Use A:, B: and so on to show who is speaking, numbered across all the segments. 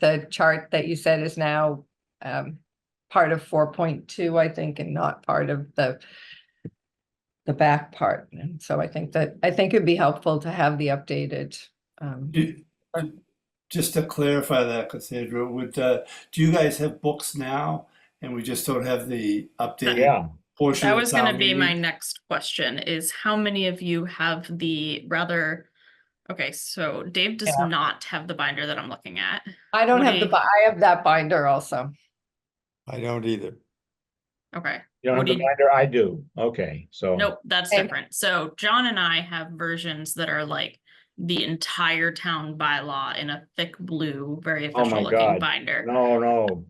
A: the chart that you said is now um part of four point two, I think, and not part of the the back part. And so I think that, I think it'd be helpful to have the updated um
B: Do- uh, Just to clarify that, Cassandra, would, uh, do you guys have books now? And we just don't have the updated
C: Yeah,
B: portion
D: That
B: of
D: was
B: town
D: gonna be my
B: meeting?
D: next question is how many of you have the rather? Okay, so Dave does not have the binder that I'm looking at.
A: I don't have the,
D: Woody.
A: bi- I have that binder also.
E: I don't either.
D: Okay,
C: you don't have the
D: Woody.
C: binder, I do, okay, so.
D: nope, that's
A: Okay.
D: different. So John and I have versions that are like the entire town bylaw in a thick blue, very
C: Oh my
D: official looking
C: God.
D: binder.
C: No, no,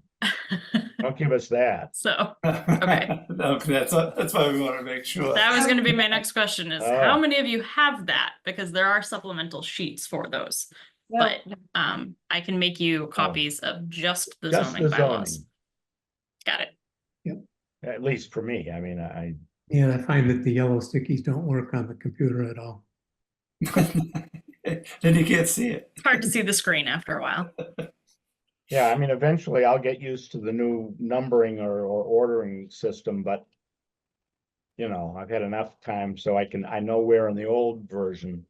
C: don't give us that.
D: So Okay.
B: Okay, that's, that's why we want to make sure.
D: that was gonna be my next question is how
C: Oh.
D: many of you have that? Because there are supplemental sheets for those.
A: Yeah.
D: Um, I can make you copies of just the
C: Oh. Just the
D: zoning bylaws.
C: zoning,
D: Got it.
C: at least for me, I mean, I,
F: Yeah, I find that the yellow stickies don't work on the computer at all.
B: Then you can't see it.
D: It's hard to see the screen after a while.
C: yeah, I mean, eventually I'll get used to the new numbering or, or ordering system, but. You know, I've had enough time, so I can, I know where in the old version.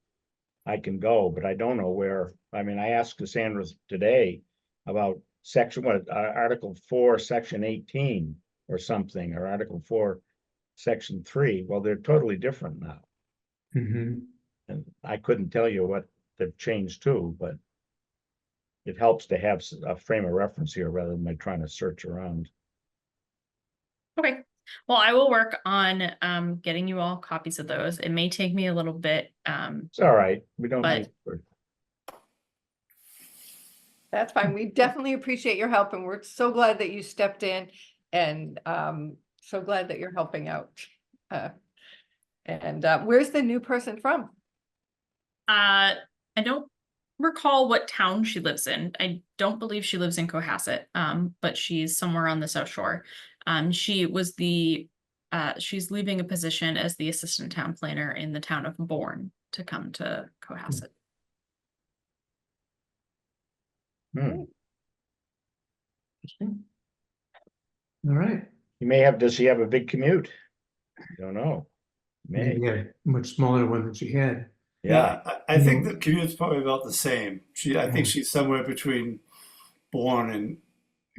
C: I can go, but I don't know where, I mean, I asked Cassandra today about section, what, uh, Article four, section eighteen. Or something, or Article four, section three, well, they're totally different now.
F: hmm
C: And I couldn't tell you what they've changed to, but. It helps to have s- a frame of reference here rather than my trying to search around.
D: Okay. Well, I will work on um getting you all copies of those. It may take me a little bit. Um,
C: It's all right, we don't.
D: But-
C: need for-
A: That's fine. We definitely appreciate your help and we're so glad that you stepped in and um so glad that you're helping out. Uh, And uh, where's the new person from?
D: uh, I don't recall what town she lives in. I don't believe she lives in Cohasset, um, but she's somewhere on the South Shore. Um, she was the uh, she's leaving a position as the assistant town planner in the town of Bourne to come to Cohasset.
C: Hmm,
F: All right.
C: You may have, does she have a big commute? Don't know. May,
F: Maybe a much smaller one than she had.
C: yeah, Mm-hmm.
B: I, I think the commute's probably about the same. She, I think she's somewhere between Bourne and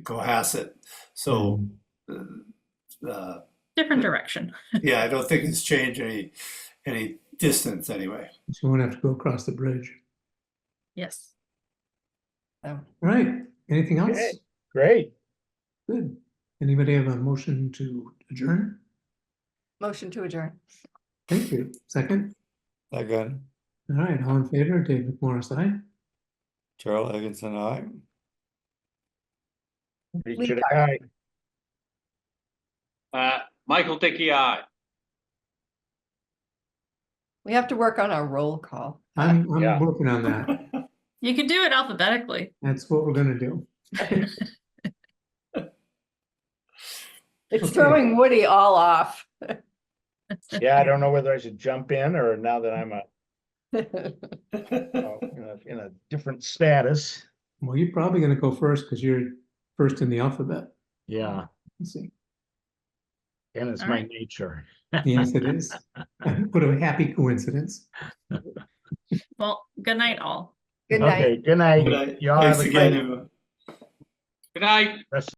B: Cohasset. So,
C: Mm-hmm.
B: uh,
D: Different direction.
B: yeah, I don't think it's changed any, any distance anyway.
F: She won't have to go across the bridge.
D: Yes.
A: Um,
F: All Right. Anything else?
C: Okay. great.
F: Good. Anybody have a motion to adjourn?
A: Motion to adjourn.
F: Thank you. Second.
E: I got
F: All right. All in favor? David Morris, aye.
E: Charles Higginson, I.
C: Reach
A: Lee
C: it
A: Carter.
C: high.
G: Uh, Michael Dickey, aye.
A: We have to work on our roll call. Uh,
F: I'm, I'm
C: Yeah.
F: working on that.
D: You could do it alphabetically.
F: That's what we're gonna do.
A: It's throwing Woody all off.
C: Yeah, I don't know whether I should jump in or now that I'm a,
B: All
C: in a- in a different status.
F: Well, you're probably gonna go first because you're first in the alphabet.
C: Yeah,
F: Let's see.
C: and it's
D: All
C: my
D: right.
C: nature.
F: Yes, it is. What a happy coincidence.
D: Well, good night, all.
A: Good night.
C: Okay, good night.
B: right.
C: Y'all have
B: Thanks
C: a
B: again,
C: great
B: everyone.
G: Good night.
C: rest